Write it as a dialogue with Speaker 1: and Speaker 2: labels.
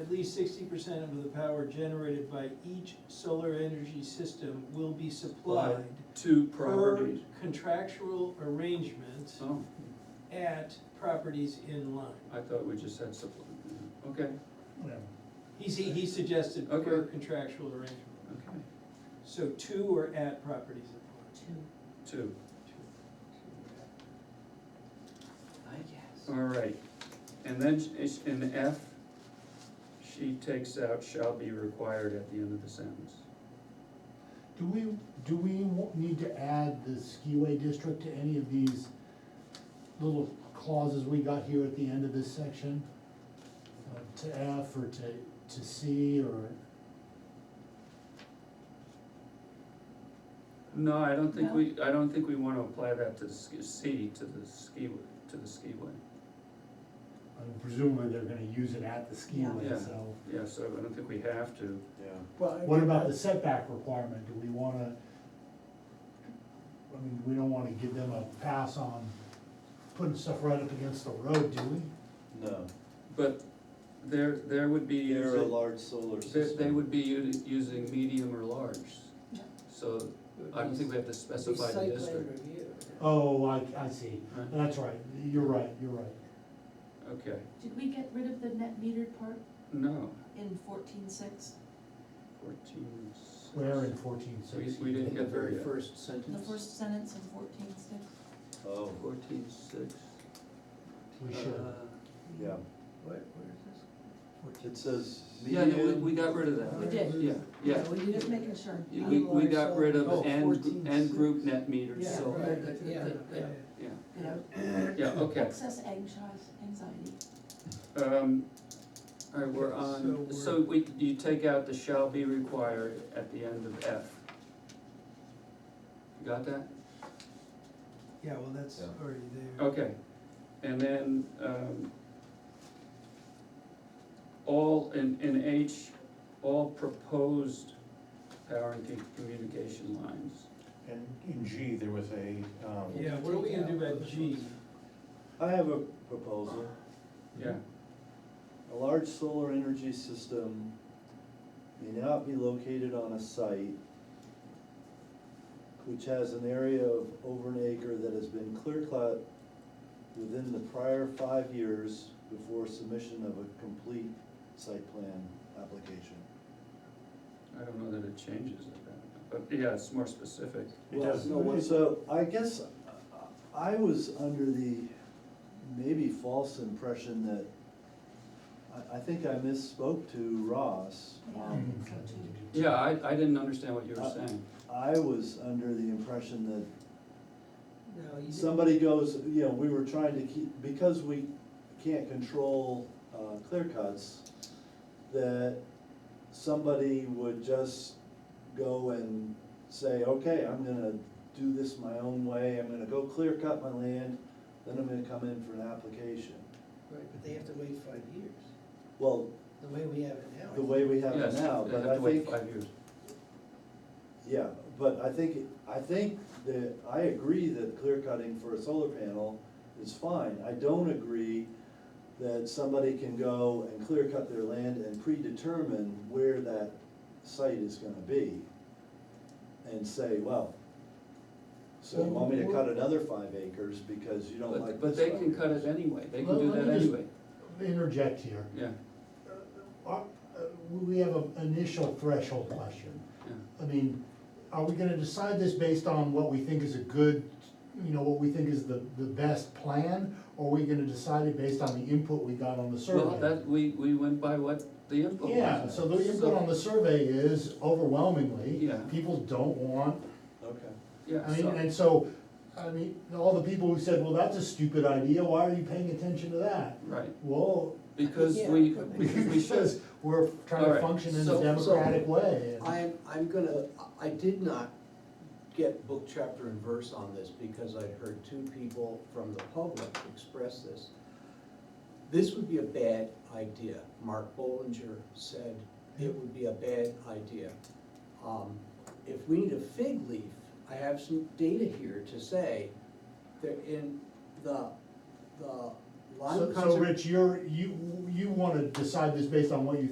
Speaker 1: at least sixty percent of the power generated by each solar energy system will be supplied
Speaker 2: Two
Speaker 1: per
Speaker 2: properties.
Speaker 1: contractual arrangement
Speaker 2: Oh,
Speaker 1: at properties in line.
Speaker 2: I thought we just had supply, okay,
Speaker 3: Yeah.
Speaker 1: He, s- he suggested per
Speaker 2: Okay.
Speaker 1: contractual arrangement,
Speaker 2: okay,
Speaker 1: so two are at properties in
Speaker 4: Two.
Speaker 2: two,
Speaker 1: line.
Speaker 4: I guess.
Speaker 2: all right. And then sh- is- in F, she takes out shall be required at the end of the sentence.
Speaker 3: Do we, do we wa- need to add the skiway district to any of these little clauses we got here at the end of this section? Uh, To F or to, to C or,
Speaker 2: No, I don't think we, I don't think we wanna apply that to the ski- C, to the skiway, to the skiway.
Speaker 3: and presumably they're gonna use it at the
Speaker 2: Yeah.
Speaker 3: skiway, so.
Speaker 2: Yeah, so I don't think we have to.
Speaker 5: Yeah,
Speaker 3: What about the setback requirement? Do we wanna, I mean, we don't wanna give them a pass on putting stuff right up against the road, do we?
Speaker 5: no,
Speaker 2: But there, there would be.
Speaker 5: you're a large solar
Speaker 2: They,
Speaker 5: system.
Speaker 2: they would be u- using medium or large,
Speaker 4: Yeah.
Speaker 2: so I don't think we have to specify the district.
Speaker 3: Oh, I, I see.
Speaker 2: Right.
Speaker 3: That's right. You're right, you're right.
Speaker 2: Okay,
Speaker 4: Did we get rid of the net metered part
Speaker 2: no,
Speaker 4: in fourteen six,
Speaker 2: fourteen. six.
Speaker 3: Where in fourteen sixty?
Speaker 2: We didn't
Speaker 6: In the
Speaker 2: get there
Speaker 6: very
Speaker 2: yet.
Speaker 6: first
Speaker 4: the
Speaker 6: sentence.
Speaker 4: first sentence in fourteen six?
Speaker 5: Oh,
Speaker 2: Fourteen six.
Speaker 3: We should.
Speaker 2: uh,
Speaker 5: yeah,
Speaker 6: Where, where is this? Fourteen.
Speaker 5: it says
Speaker 2: Yeah, no, we,
Speaker 5: medium.
Speaker 2: we got rid of that.
Speaker 4: We did.
Speaker 2: Yeah, yeah.
Speaker 4: We were just making sure.
Speaker 2: You- We, we got rid
Speaker 6: Oh,
Speaker 2: of and,
Speaker 6: 14,
Speaker 2: and group
Speaker 6: six.
Speaker 2: net meters,
Speaker 6: Yeah,
Speaker 2: so,
Speaker 6: right,
Speaker 2: yeah,
Speaker 6: yeah, yeah.
Speaker 2: yeah,
Speaker 4: You know,
Speaker 2: yeah, okay.
Speaker 4: excess anxi- anxiety.
Speaker 2: Um, all right, we're
Speaker 1: Okay,
Speaker 2: on,
Speaker 1: so
Speaker 2: so we, you take out the shall be required at the end of F. You got that?
Speaker 1: Yeah, well, that's
Speaker 5: Yeah.
Speaker 1: already there.
Speaker 2: Okay, and then, um, all, in, in H, all proposed power and com- communication lines.
Speaker 7: And in G, there was a,
Speaker 5: Oh.
Speaker 7: um,
Speaker 1: Yeah, what are we gonna do about G?
Speaker 5: I have a proposal,
Speaker 3: Mm-hmm.
Speaker 2: Yeah,
Speaker 5: a large solar energy system may not be located on a site which has an area of over an acre that has been clear cut within the prior five years before submission of a complete site plan application.
Speaker 2: I don't know that it changes it, but, yeah, it's more specific.
Speaker 7: It
Speaker 5: Well,
Speaker 7: does.
Speaker 5: no, what- So I guess uh, I was under the maybe false impression that, I, I think I misspoke to Ross. Um,
Speaker 4: Yeah, so
Speaker 3: Mm-hmm.
Speaker 4: too.
Speaker 2: Yeah, I, I didn't understand what you were
Speaker 5: Uh,
Speaker 2: saying.
Speaker 5: I was under the impression that
Speaker 6: No, you didn't,
Speaker 5: somebody goes, you know, we were trying to keep, because we can't control, uh, clear cuts, that somebody would just go and say, okay, I'm gonna do this my own way, I'm gonna go clear cut my land, then I'm gonna come in for an application.
Speaker 6: right, but they have to wait five years,
Speaker 5: Well,
Speaker 6: the way we have it now. I
Speaker 5: the way we have it
Speaker 2: Yes,
Speaker 5: now,
Speaker 2: they
Speaker 5: but
Speaker 2: have
Speaker 5: I
Speaker 2: to wait
Speaker 5: think,
Speaker 2: Five years.
Speaker 5: yeah, but I think, it- I think that, I agree that clear cutting for a solar panel is fine. I don't agree that somebody can go and clear cut their land and predetermine where that site is gonna be. And say, well, so you want me to cut another five acres because you don't like
Speaker 2: Mm-hmm. But, but
Speaker 5: this
Speaker 2: they
Speaker 5: five
Speaker 2: can cut
Speaker 5: acres?"
Speaker 2: it anyway, they can
Speaker 3: Well,
Speaker 2: do
Speaker 3: let
Speaker 2: that
Speaker 3: me just-
Speaker 2: anyway,
Speaker 3: Interject here.
Speaker 2: yeah,
Speaker 3: Are- uh, We have an initial threshold question.
Speaker 2: yeah.
Speaker 3: I mean, are we gonna decide this based on what we think is a good, you know, what we think is the, the best plan? Or are we gonna decide it based on the input we got on the
Speaker 2: Well,
Speaker 3: survey?
Speaker 2: that, we, we went by what the input was.
Speaker 3: Yeah, so the input on the survey is overwhelmingly,
Speaker 2: Yeah.
Speaker 3: people don't want
Speaker 5: Okay.
Speaker 2: Yeah,
Speaker 3: I mean,
Speaker 2: so-
Speaker 3: and so, I mean, all the people who said, well, that's a stupid idea, why are you paying attention to that?
Speaker 2: right,
Speaker 3: Well,
Speaker 2: because we,
Speaker 6: Yeah.
Speaker 2: because we should,
Speaker 3: because we're trying
Speaker 2: Alright,
Speaker 3: to function in a
Speaker 6: so-
Speaker 2: so-
Speaker 3: democratic way. and-
Speaker 6: I-
Speaker 7: I'm, I'm gonna, I did not get book, chapter, and verse on this because I'd heard two people from the public express this. This would be a bad idea. Mark Bollinger said it would be a bad idea. Um, If we need a fig leaf, I have some data here to say that in the, the line
Speaker 3: So,
Speaker 7: of
Speaker 3: so
Speaker 7: conservation.
Speaker 3: Rich, you're, you, you wanna decide this based on what you think